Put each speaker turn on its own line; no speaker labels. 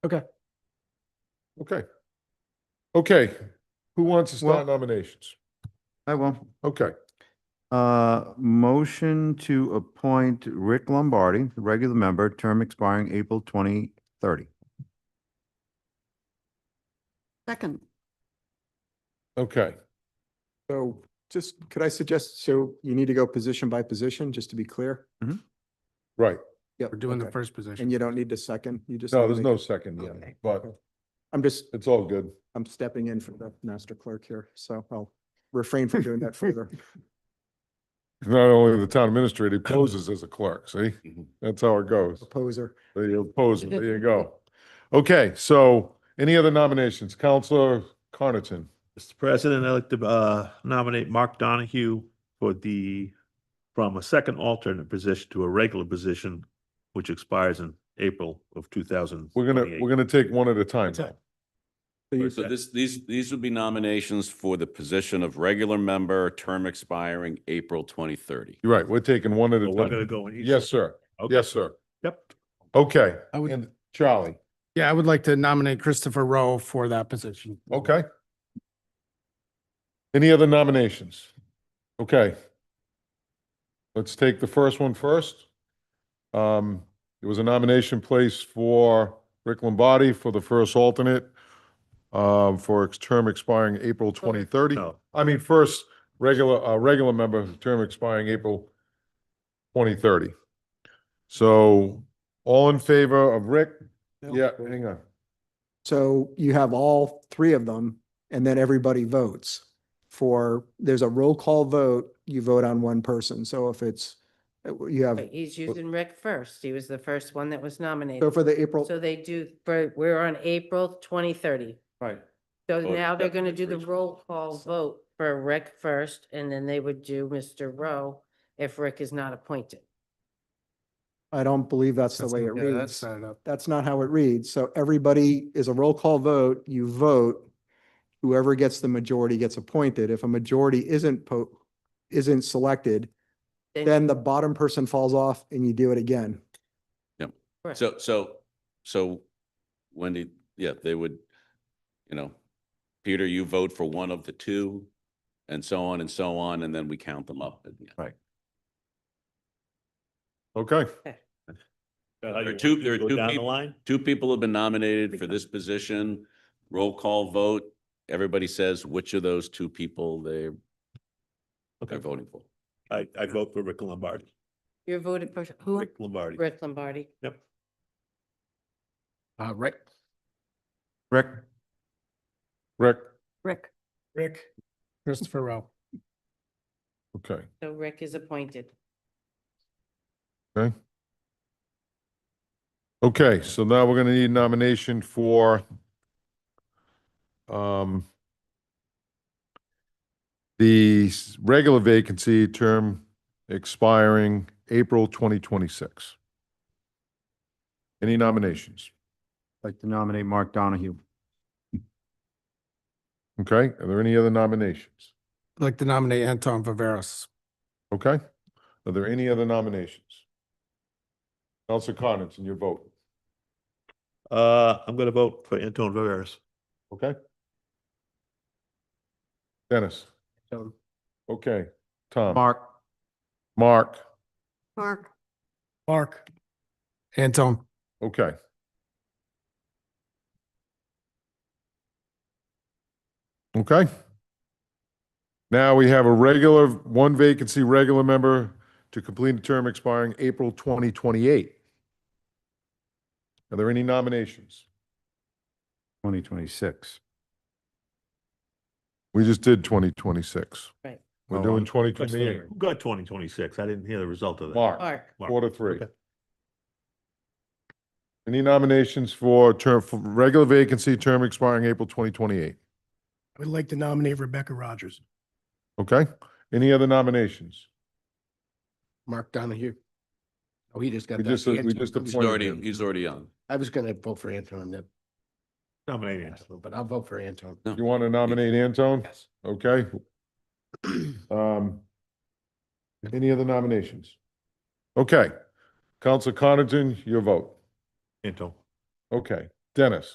Okay.
Okay. Okay, who wants to
Well-
start nominations?
I will.
Okay,
Uh, motion to appoint Rick Lombardi, the regular member, term expiring April twenty thirty.
Second,
okay,
So just, could I suggest, so you need to go position by position, just to be clear?
right.
Yep.
Mm-hmm. We're doing the
okay.
first position.
And you don't need the second, you just.
No,
need
there's
to-
no second yet, but
I'm just,
it's all good.
I'm stepping in for the master clerk here, so I'll refrain from doing that further.
Not only the town administrator he poses as a clerk, see?
Mm-hmm.
That's how it goes.
Proposer.
There pose, there you go. Okay, so any other nominations? Counselor Carnatton?
Mr. President, I'd like to uh, nominate Mark Donahue for the, from a second alternate position to a regular position, which expires in April of two thousand.
We're gonna, we're gonna take one at a time.
That's it.
So you-
So this, these, these would be nominations for the position of regular member, term expiring April twenty thirty.
You're right, we're taking one at a
We're gonna
time.
go in. each-
Yes, sir.
Okay.
Yes, sir.
Yep.
Okay,
I would-
and Charlie,
Yeah, I would like to nominate Christopher Rowe for that position.
okay. Any other nominations? Okay. Let's take the first one first. Um, it was a nomination placed for Rick Lombardi for the first alternate um, for its term expiring April 2030.
No,
I mean, first, regular, uh, regular member, term expiring April twenty thirty. So all in favor of Rick? Yeah, hang on.
So you have all three of them and then everybody votes for, there's a roll call vote, you vote on one person. So if it's, uh, you have,
Right, he's using Rick first. He was the first one that was
so
nominated.
for the April,
So they do, for- we're on April twenty thirty.
Right.
So
Oh,
now they're
yeah,
gonna do the
Rick's
roll call vote for Rick first, and then they would do Mr. Rowe if Rick is not appointed.
I don't believe that's the way it
Yeah, that's
reads.
set it up.
That's not how it reads. So everybody is a roll call vote, you vote. Whoever gets the majority gets appointed. If a majority isn't po, isn't selected, then the bottom person falls off and you do it again.
Correct.
So, so, so Wendy, yeah, they would, you know, Peter, you vote for one of the two and so on and so on, and then we count them up. at the end.
Okay,
How you
There are two- there are
go
two
Down the
peop-
line?
Two people have been nominated for this position, roll call vote. Everybody says which of those two people they,
Okay.
they're voting for.
I, I vote for Rick Lombardi.
You're voted for who?
Rick Lombardi.
Rick Lombardi.
Yep.
Uh, right.
Rick,
Rick,
Rick,
Rick. Christopher Rowe.
okay.
So Rick is appointed.
Okay, so now we're gonna need nomination for um the s- regular vacancy term expiring April twenty twenty-six. Any nominations?
I'd like to nominate Mark Donahue.
Okay, are there any other nominations?
I'd like to nominate Anton Viveras.
Okay, are there any other nominations? Counselor Connaughton, your vote,
Uh, I'm gonna vote for Anton Viveras.
okay? Dennis? Okay, Tom?
Mark,
Mark?
Mark,
Mark. Anton.
Okay. Okay. Now we have a regular, one vacancy regular member to complete a term expiring April 2028. Are there any nominations?
twenty twenty-six.
We just did 2026.
Right.
We're
Oh,
doing
I'm-
Who
2028.
got twenty twenty-six? I didn't hear the result of that.
Mark,
Mark,
Mark.
four to three.
Okay.
Any nominations for term, for regular vacancy, term expiring April 2028?
I would like to nominate Rebecca Rogers.
Okay? Any other nominations?
Mark Donahue. Oh, he just got.
We
that.
just- we
Anton.
just
I'm
He's
appointed
already,
him.
he's already on.
I was gonna vote for Anton, then,
Nominate Anton.
but I'll vote for Anton.
You want to nominate Anton?
Yes.
Okay. Um, any other nominations? Okay. Council Connaughton, your vote.
Anton.
Okay. Dennis?